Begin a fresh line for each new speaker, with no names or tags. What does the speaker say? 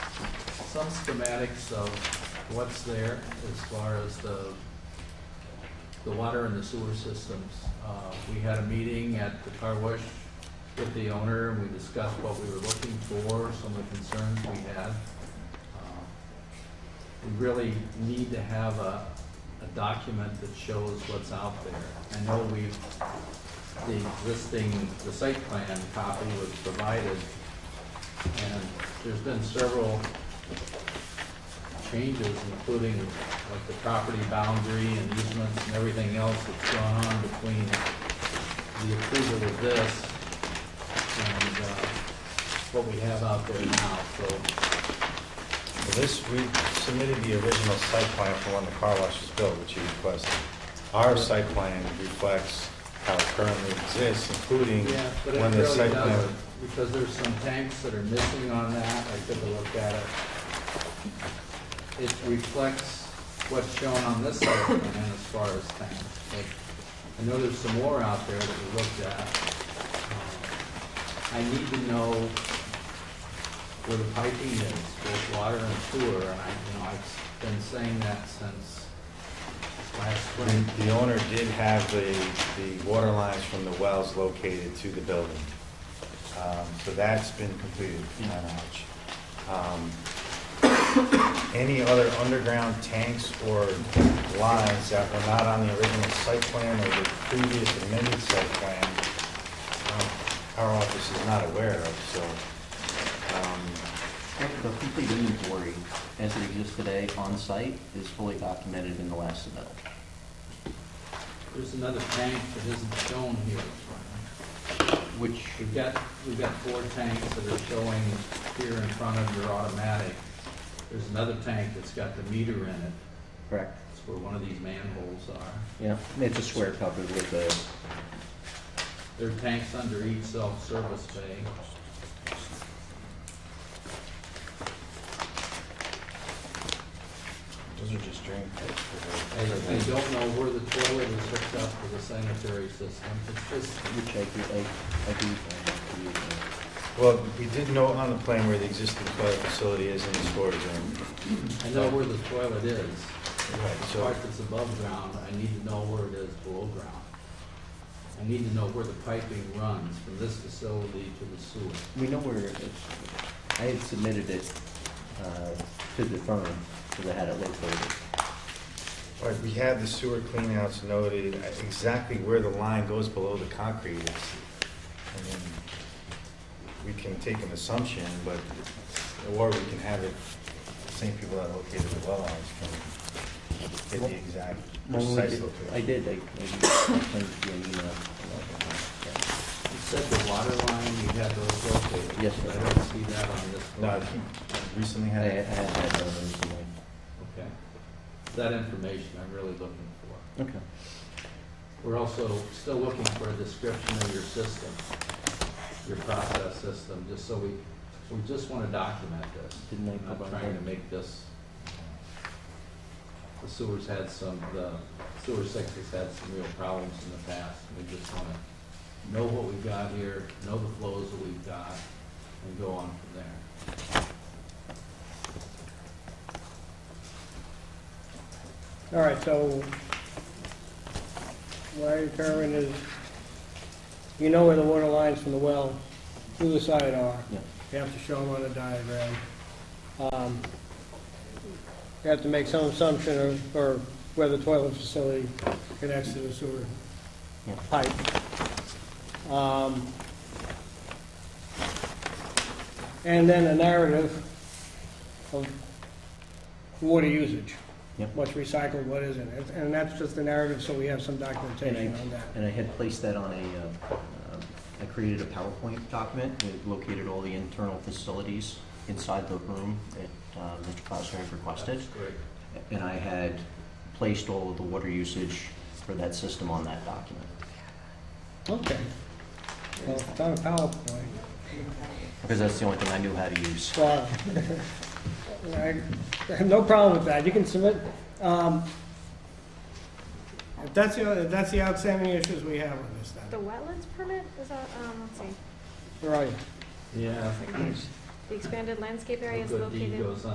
some schematics of what's there as far as the, the water and the sewer systems. Uh, We had a meeting at the car wash with the owner, and we discussed what we were looking for, some of the concerns we had. Uh, We really need to have a, a document that shows what's out there. I know we've the existing, the site plan copy was provided, and there's been several changes, including like the property boundary and easements and everything else that's gone on between the approval of this and uh, what we have out there now, so
Well, This, we submitted the original site plan for when the car wash was built, which you requested. Our site plan reflects how it currently exists, including
Yeah, but it
when the
really
site plan.
doesn't, because there's some tanks that are missing on that, I took a look at it. It reflects what's shown on this site plan as far as tanks, but I know there's some more out there that we looked at. Um, I need to know where the piping is, both water and sewer, and I, you know, I've been saying that since last spring.
The owner did have the, the water lines from the wells located to the building. Um, So that's been completed, to my knowledge. Um, Any other underground tanks or lines that were not on the original site plan or the previous amended site plan, um, our office is not aware of, so. um,
The complete inventory, as it exists today on site, is fully documented in the last submittal.
There's another tank that isn't shown here.
Which,
We've got, we've got four tanks that are showing here in front of your automatic. There's another tank that's got the meter in it.
correct,
It's where one of these manholes are.
yeah, it's a square covered with the,
There are tanks under each self-service bay.
Those are just drain pipes.
I I
for the-
don't know where the toilet is hooked up to the sanitary system. It's just,
which I do, I, I do. find out to be, uh,
Well, we did note on the plan where the existing toilet facility is in the storage room.
I know where the toilet is.
Right,
The
so-
part that's above ground, I need to know where it is below ground. I need to know where the piping runs from this facility to the sewer.
We know where, it- I had submitted it, uh, to the firm, because I had it located.
All right, we had the sewer cleanouts noted, uh, exactly where the line goes below the concrete is. I mean, We can take an assumption, but, or we can have it, the same people that located the well lines can get the exact
When we
precise
did- I
location.
did, I, I sent you an email. Yeah.
You said the water line, you had those located.
Yes, sir.
I don't see that on this.
No, I
plan.
think recently
I, I
had,
had that done recently.
Okay. It's That information I'm really looking for.
Okay.
We're also still looking for a description of your system, your process system, just so we, we just want to document this.
Didn't I
I'm not
provide
trying to
that?
make this, the sewers had some, the sewer sector's had some real problems in the past. and We just want to know what we've got here, know the flows that we've got, and go on from there.
All right, so Larry Kerwin is, you know where the water lines from the well to the side are.
Yeah.
You have to show them on a diagram. Um, You have to make some assumption of, or where the toilet facility connects to the sewer
Yeah.
pipe. Um, And then a narrative of water usage what's recycled, what isn't. And- And that's just the narrative, so we have some documentation
And
on that.
And I had placed that on a, uh, um, I created a PowerPoint document that located all the internal facilities inside the room that uh, Mr. Klausner had requested.
That's great.
And I had placed all of the water usage for that system on that document.
Okay. Well, it's on a PowerPoint.
Because that's the only thing I knew how to use.
Wow. I I have no problem with that. You can submit, um, if that's the, if that's the outstanding issues we have with this
The
then.
wetlands permit, is that, um, let's see,
Where are you?
Yeah.
the expanded landscape area is
Good deed
located.
goes